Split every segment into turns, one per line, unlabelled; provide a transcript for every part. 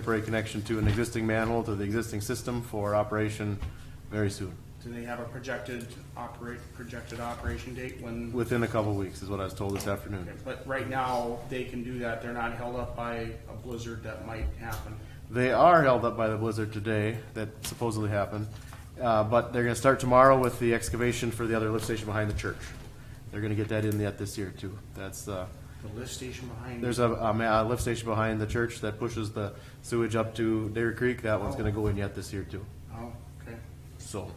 temporary connection to an existing manhole to the existing system for operation very soon,
Do they have a projected operate, projected operation date when,
within a couple of weeks, is what I was told this afternoon.
but right now, they can do that, they're not held up by a blizzard that might happen.
They are held up by the blizzard today that supposedly happened, uh, but they're gonna start tomorrow with the excavation for the other lift station behind the church. They're gonna get that in yet this year too. That's, uh,
The lift station behind,
there's a, a ma- a lift station behind the church that pushes the sewage up to Dairy Creek. That one's gonna go in yet this year too,
oh, okay,
so.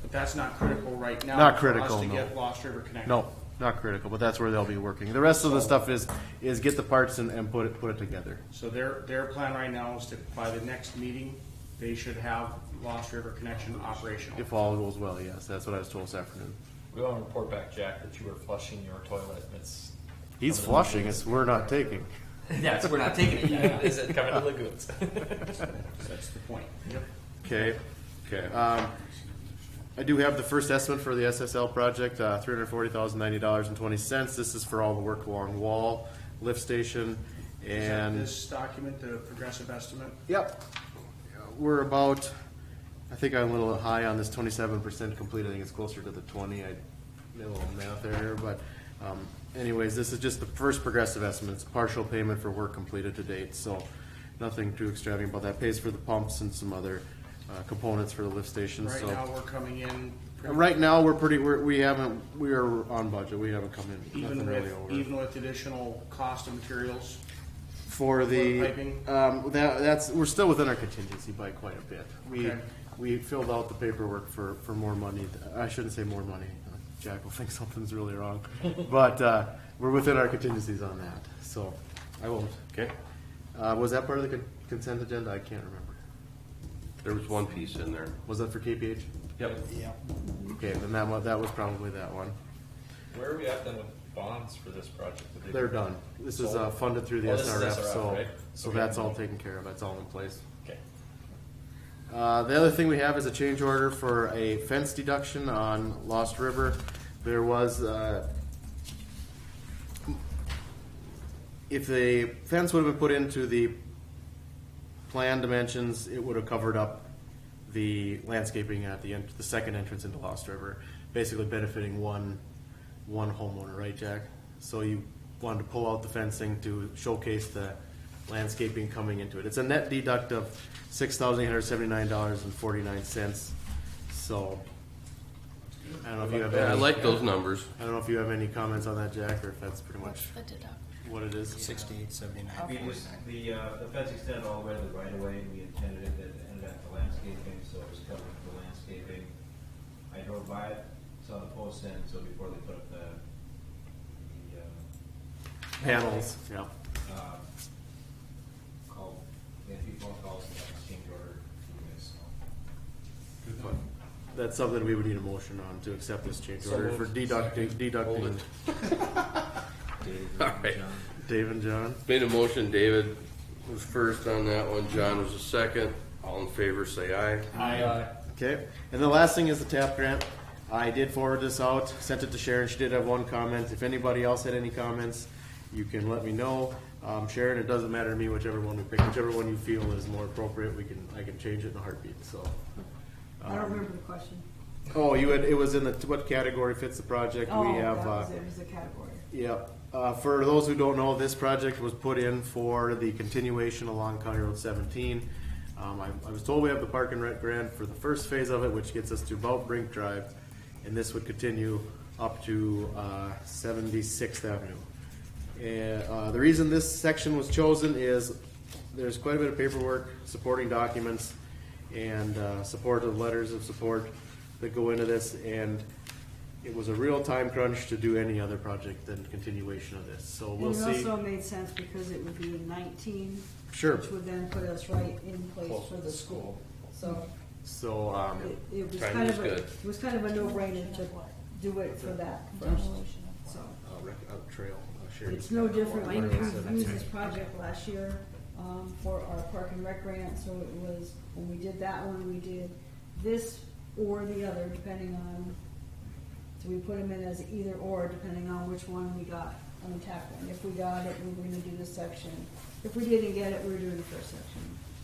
but that's not critical right now.
Not
for us
critical,
To
no.
get Lost River connected.
No, not critical, but that's where they'll be working. The rest of the stuff is, is get the parts and, and put it, put it together.
So their, their plan right now is to, by the next meeting, they should have Lost River connection operational.
If all goes well, yes, that's what I was told this afternoon.
We want to report back, Jack, that you were flushing your toilet. and It's
He's flushing, it's, we're not taking.
Yeah, so we're not taking it yet.
is it coming to lagoons?
That's the point. Yep.
Okay. Okay. Um, I do have the first estimate for the SSL project, uh, three hundred forty thousand ninety dollars and twenty cents. This is for all the work along wall, lift station,
Is that
and.
This document, the progressive estimate,
Yep. We're about, I think I'm a little high on this twenty-seven percent complete, I think it's closer to the twenty, I did a little math there, but, um, anyways, this is just the first progressive estimate, it's partial payment for work completed to date, so nothing too extravagant about that, pays for the pumps and some other, uh, components for the lift station,
right now,
so.
we're coming in. pretty-
Right now, we're pretty, we're, we haven't, we are on budget, we haven't come in,
Even
nothing really
with,
over.
even with additional cost of materials,
For the,
piping?
um, that, that's, we're still within our contingency by quite a bit. We,
Okay.
we filled out the paperwork for, for more money, I shouldn't say more money, Jack will think something's really wrong. But, uh, we're within our contingencies on that, so I won't, okay? Uh, was that part of the con- consent agenda? I can't remember.
There was one piece in there.
Was that for KPH?
Mm-hmm.
Yep.
Okay, then that one, that was probably that one.
Where are we at then with bonds for this project? Did they-
They're done. This is, uh, funded through the
Oh, this is
SRF,
SRF,
so,
right?
so
Okay.
that's all taken care of, that's all in place.
Okay.
Uh, the other thing we have is a change order for a fence deduction on Lost River. There was, uh, if the fence would have been put into the plan dimensions, it would have covered up the landscaping at the end, the second entrance into Lost River, basically benefiting one, one homeowner, right, Jack? So you wanted to pull out the fencing to showcase the landscaping coming into it. It's a net deduct of six thousand eight hundred seventy-nine dollars and forty-nine cents, so. I don't know if you have,
I
any-
like those numbers.
I don't know if you have any comments on that, Jack, or if that's pretty much
The deduct.
what it is.
Sixty-eight, seventy-nine.
We just, the, uh, the fence extended all the way to the right of way, and we intended it to end at the landscaping, so it was covered for landscaping. I drove by it, saw the post end, so before they put up the, uh, the,
Panels, yeah.
uh, uh, call, they had people calls, and that exchange order, you guys, so.
But That's something we would need a motion on to accept this change
So
order for
moved.
deducting, deducting.
Hold All right.
Dave and John,
Made a motion, David was first on that one, John was the second. All in favor, say aye.
okay? And the last thing is the TAP grant. I did forward this out, sent it to Sharon, she did have one comment. If anybody else had any comments, you can let me know. Um, Sharon, it doesn't matter to me whichever one we pick, whichever one you feel is more appropriate, we can, I can change it in a heartbeat, so.
I don't remember the question.
Oh, you had, it was in the, what category fits the project?
Oh,
We have,
that
uh,
was, it was a category.
Yep. Uh, for those who don't know, this project was put in for the continuation along County Road seventeen. Um, I, I was told we have the park and rec grant for the first phase of it, which gets us to about Brink Drive. And this would continue up to, uh, Seventy-Sixth Avenue. And, uh, the reason this section was chosen is there's quite a bit of paperwork, supporting documents, and, uh, supportive letters of support that go into this. And it was a real time crunch to do any other project than continuation of this, so we'll
And it
see.
also made sense because it would be in nineteen.
Sure.
Which would then put us right in place for the school. So
So, um,
it, it was
Timing
kind
was
of a,
good.
it was kind of a no-brainer to do it for that first.
Demolition of
So
uh, rec- uh, trail, uh, shared.
it's no different. We we used this project last year, um, for our park and rec grant, so it was, when we did that one, we did this or the other, depending on, so we put them in as either or, depending on which one we got on the tap grant. If we got it, we were gonna do this section. If we didn't get it, we were doing the first section.